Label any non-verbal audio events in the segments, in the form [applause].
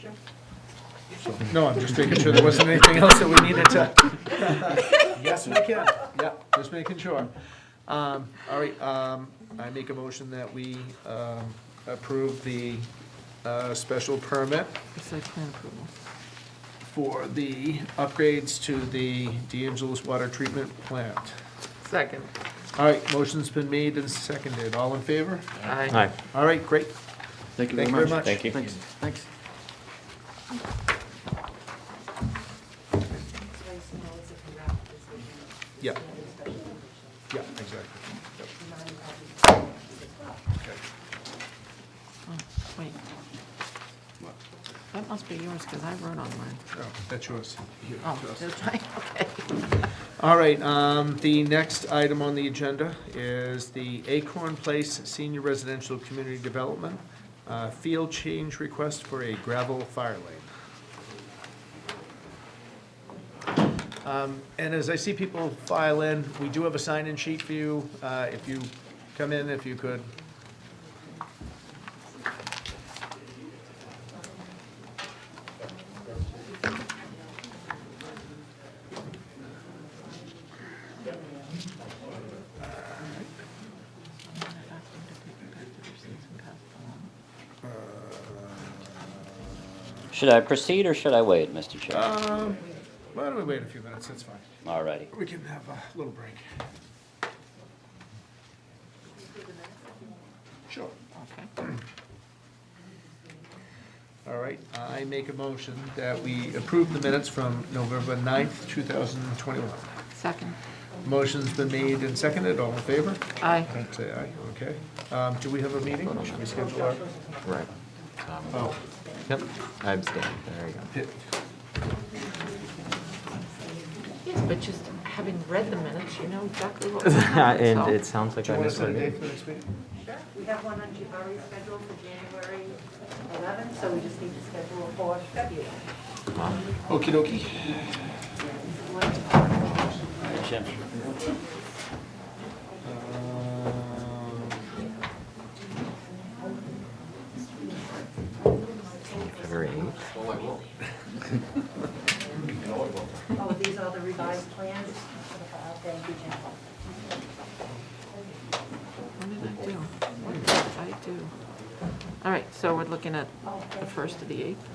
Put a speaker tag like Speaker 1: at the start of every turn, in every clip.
Speaker 1: Sure.
Speaker 2: No, I'm just making sure there wasn't anything else that we needed to. [laughs] Yes, we can, yep, just making sure. Um, all right, um, I make a motion that we, um, approve the, uh, special permit
Speaker 3: The site plan approval.
Speaker 2: for the upgrades to the DeAngelis Water Treatment Plant.
Speaker 3: Second.
Speaker 2: All right, motion's been made and seconded, all in favor?
Speaker 3: Aye.
Speaker 2: All right, great,
Speaker 4: Thank you
Speaker 2: Thank
Speaker 4: very
Speaker 2: you very
Speaker 4: much.
Speaker 2: much.
Speaker 5: Thank you.
Speaker 4: Thanks, thanks.
Speaker 2: yeah, yeah, exactly. Yep.
Speaker 3: Oh, Wait. That must be yours, because I wrote on mine.
Speaker 2: Oh, that's yours. Here,
Speaker 3: Oh,
Speaker 2: just-
Speaker 3: that's right, [laughs] okay.
Speaker 2: All right, um, the next item on the agenda is the Acorn Place Senior Residential Community Development, uh, field change request for a gravel fire lane. Um, and as I see people file in, we do have a sign-in sheet for you, uh, if you come in, if you could.
Speaker 5: Should I proceed or should I wait, Mr. Chair?
Speaker 2: um, Why don't we wait a few minutes, that's fine.
Speaker 4: Uh,
Speaker 5: All righty.
Speaker 2: We can have a little break. Sure.
Speaker 3: Okay.
Speaker 2: All right, I make a motion that we approve the minutes from November 9th, 2021.
Speaker 3: Second.
Speaker 2: Motion's been made and seconded, all in favor?
Speaker 3: Aye.
Speaker 2: Say aye, okay. Um, Do we have a meeting? Should we schedule our?
Speaker 6: Right.
Speaker 2: Oh,
Speaker 6: Yep, Um, I abstain. There you go.
Speaker 2: hit.
Speaker 3: Yes, but just having read the minutes, you know exactly [laughs] what was happening, so.
Speaker 6: [laughs] And it sounds like
Speaker 2: Do you
Speaker 6: I
Speaker 2: want to
Speaker 6: missed
Speaker 2: set
Speaker 6: one.
Speaker 2: a date for next meeting?
Speaker 1: Sure, we have one on Chief already scheduled for January 11th, so we just need to schedule for February.
Speaker 2: Okey dokey.
Speaker 5: Jim,
Speaker 2: Um,
Speaker 6: February 8th.
Speaker 1: Oh, these are the revised plans? Thank you, Jim.
Speaker 3: What did I do? What did I do? All right, so we're looking at the first of the eighth.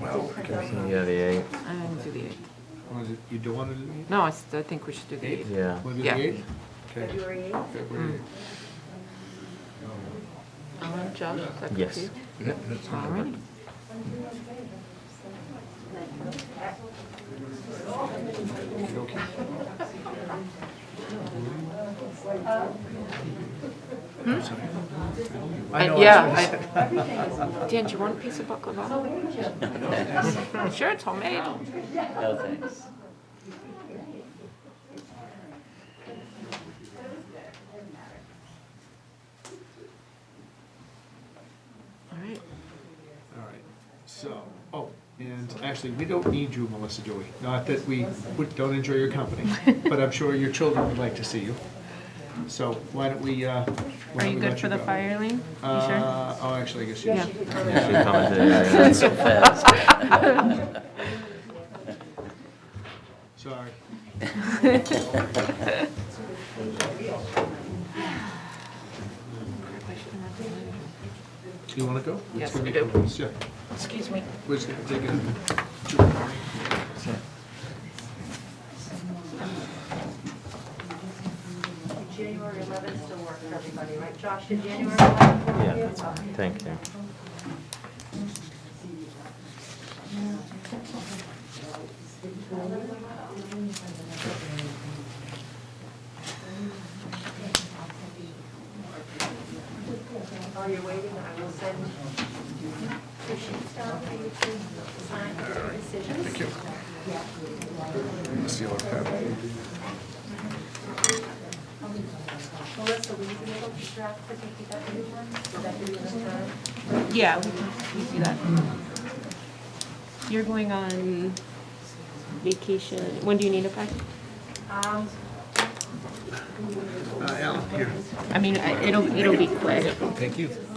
Speaker 6: Yeah, the
Speaker 3: I didn't do the eighth.
Speaker 2: Was it- You don't want to do the meeting?
Speaker 3: No, I s- I think we should do the eighth.
Speaker 6: 8th. Yeah.
Speaker 2: Want to do the
Speaker 3: Yeah.
Speaker 2: 8th? Okay.
Speaker 1: February 8th?
Speaker 3: Mm.
Speaker 2: February
Speaker 3: Alan, Josh, is that good
Speaker 6: Yes.
Speaker 3: for you? All right.
Speaker 2: Hmm?
Speaker 3: Uh,
Speaker 2: I know
Speaker 3: Uh,
Speaker 2: I
Speaker 3: Yeah. I- [laughs] Dan, do you want a piece of baklava?
Speaker 2: [laughs]
Speaker 3: Sure, it's homemade.
Speaker 5: no thanks.
Speaker 3: All right.
Speaker 2: All right, so, oh, and actually, we don't need you, Melissa, do we? Not that we would- don't enjoy your
Speaker 7: [laughs]
Speaker 2: company, but I'm sure your children would like to see you. So why don't we, uh, why
Speaker 7: Are
Speaker 2: don't
Speaker 7: you
Speaker 2: we
Speaker 7: good
Speaker 2: let
Speaker 7: for the
Speaker 2: go?
Speaker 7: fire lane? You
Speaker 2: [laughs]
Speaker 7: sure?
Speaker 2: Uh, oh, actually, I guess you.
Speaker 7: Yeah.
Speaker 6: She commented, yeah,
Speaker 5: So fast.
Speaker 3: [laughs]
Speaker 2: Sorry. Do you want to go?
Speaker 3: Yes,
Speaker 2: It's gonna
Speaker 3: I
Speaker 2: be-
Speaker 3: do.
Speaker 2: Yeah,
Speaker 3: Excuse me.
Speaker 2: we're just gonna take a.
Speaker 1: January 11th still works for everybody, right? Josh, did January 11th work
Speaker 6: yeah. [laughs]
Speaker 1: for
Speaker 6: Yeah,
Speaker 1: you?
Speaker 6: that's fine. Thank you.
Speaker 1: While you're waiting, I will send two sheets down for you to sign your decisions. Thank you. Melissa, will you be able to draft the DPW one? Would that be enough time?
Speaker 7: Yeah, we can, we can do that. You're going on vacation. When do you need it back?
Speaker 1: Um,
Speaker 7: I mean, I- it'll, it'll be quick.
Speaker 2: Thank you.